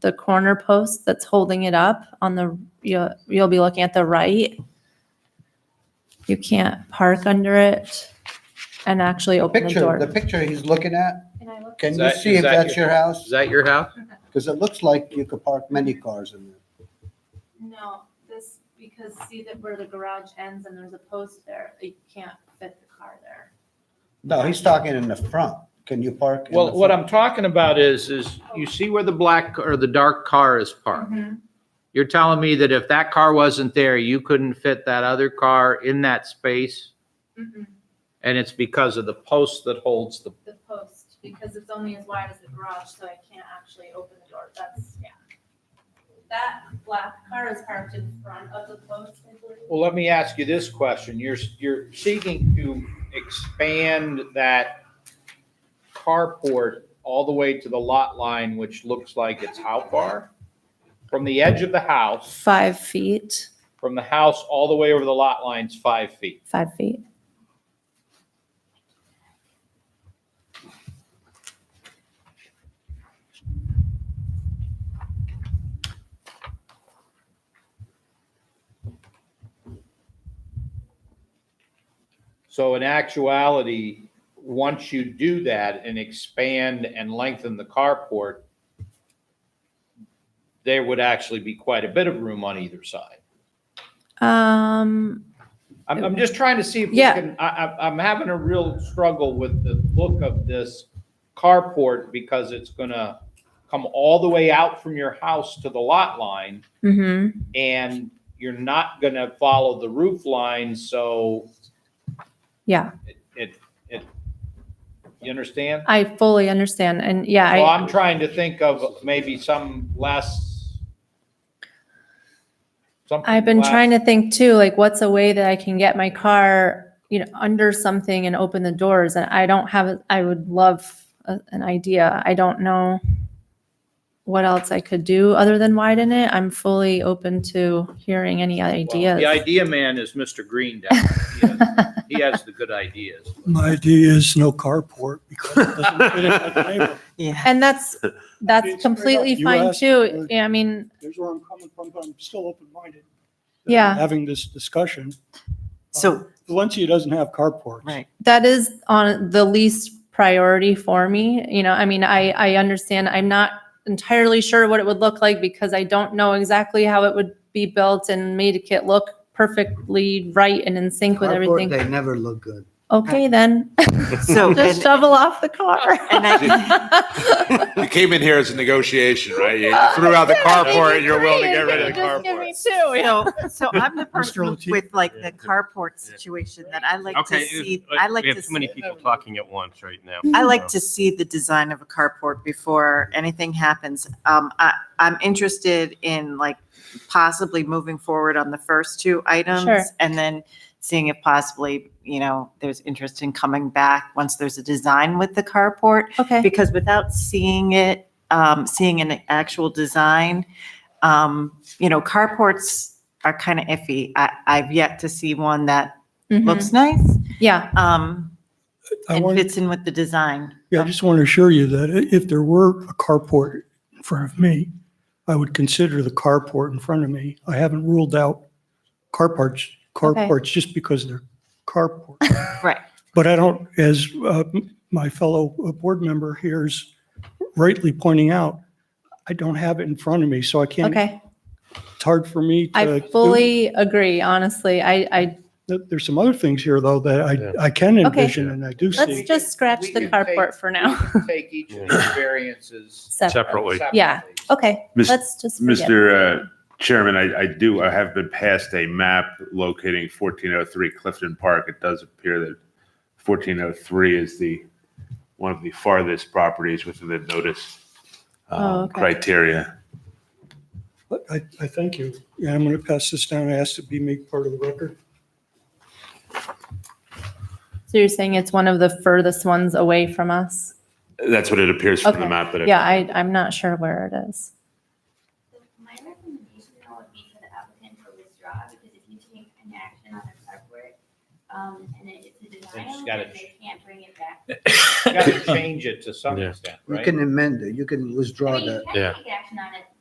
the corner post that's holding it up on the, you'll, you'll be looking at the right. You can't park under it and actually open the Picture, door. the picture he's looking at, can Is you that- see is if that that's your Is house? that your house? Because it looks like you could park many cars in there. No, this, because see that where the garage ends and there's a post there, uh, you can't fit the car there. No, he's talking in the front. Can you park? in Well, the what front? I'm talking about is, is you see where the black or the dark car is parked. Mm-hmm. You're telling me that if that car wasn't there, you couldn't fit that other car in that space? And it's because of the post that holds the, Mm-hmm, The post, because it's only as wide as the garage, so I can't actually open the door, that's, yeah. That black car is parked in front of the post, I believe. well, let me ask you this question. You're, you're seeking to expand that carport all the way to the lot line, which looks like it's how far? From the edge of the house, Five feet, from the house all the way over the lot line's five feet. five feet. So in actuality, once you do that and expand and lengthen the carport, there would actually be quite a bit of room on either side. Um, I'm, I'm just trying to see if we Yeah. can, I, I, I'm having a real struggle with the look of this carport because it's gonna come all the way out from your house to the lot line mm-hmm, and you're not gonna follow the roof line, so yeah, it, it, it, you understand? I fully understand, and yeah, Well, I, I'm trying to think of maybe some less. something I've been less- trying to think too, like what's a way that I can get my car, you know, under something and open the doors? And I don't have, a- I would love a- an idea. I don't know what else I could do other than widen it. I'm fully open to hearing any Well, The ideas. idea man is Mr. Green down. there. He has- He has the good ideas. My idea is no carport because it doesn't fit in my neighborhood. And that's, that's completely You fine asked too. for- Yeah, I mean, There's where I'm coming from, but I'm still open-minded. Yeah. Having this discussion. Uh, So, Valencia doesn't have carports. right. that is on the least priority for me. You know, I mean, I, I understand, I'm not entirely sure what it would look like because I don't know exactly how it would be built and made it look perfectly right and in sync with Carport, everything. They never look good. Okay, then, So, just and, shovel off the car. and I. You came in here as a negotiation, right? You threw out the carport, you're willing to get rid of the carport. so, so I'm the Mr. person Latif. with like the carport situation that I like to Okay. see, uh, I like We to, have too many see- people talking at once right now. I like to see the design of a carport before anything happens. Um, I, I'm interested in like possibly moving forward on the first two Sure. items and then seeing if possibly, you know, there's interest in coming back once there's a design with the carport. Okay, because without seeing it, um, seeing an actual design, um, you know, carports are kind of iffy. I, I've yet to see one that mhm, looks nice, yeah, um, I and want, fits in with the design. yeah, I just want to assure you that i- if there were a carport in front of me, I would consider the carport in front of me. I haven't ruled out carports, carports just because they're carports. Right. But I don't, as uh, my fellow uh, board member here is rightly pointing out, I don't have it in front of me, so I can't, okay. it's hard for me to. I fully agree, honestly. I, I, There- There's some other things here, though, that I, I can Okay. envision and I do let's see. just scratch We the can carport take- for now. We can Take each of these variances Separate. Separately. Yeah. separately. Okay, Mis- let's just. forget. Mr. uh, Chairman, I, I do, I have been passed a map locating fourteen oh three Clifton Park. It does appear that fourteen oh three is the, one of the farthest properties within the notice um, Oh, okay. criteria. I, I thank you. And I'm going to pass this down. I ask to be made part of the record. So you're saying it's one of the furthest ones away from us? That's what it appears from the Okay. map that I. Yeah, I, I'm not sure where it is. My recommendation though would be for the applicant to withdraw, because if you take an action on the carport, um, and it- it's They a just denial, gotta- and they can't bring it back. You gotta change it to some Yeah. extent, You right? can amend it, you can withdraw I mean, that. you can take action on it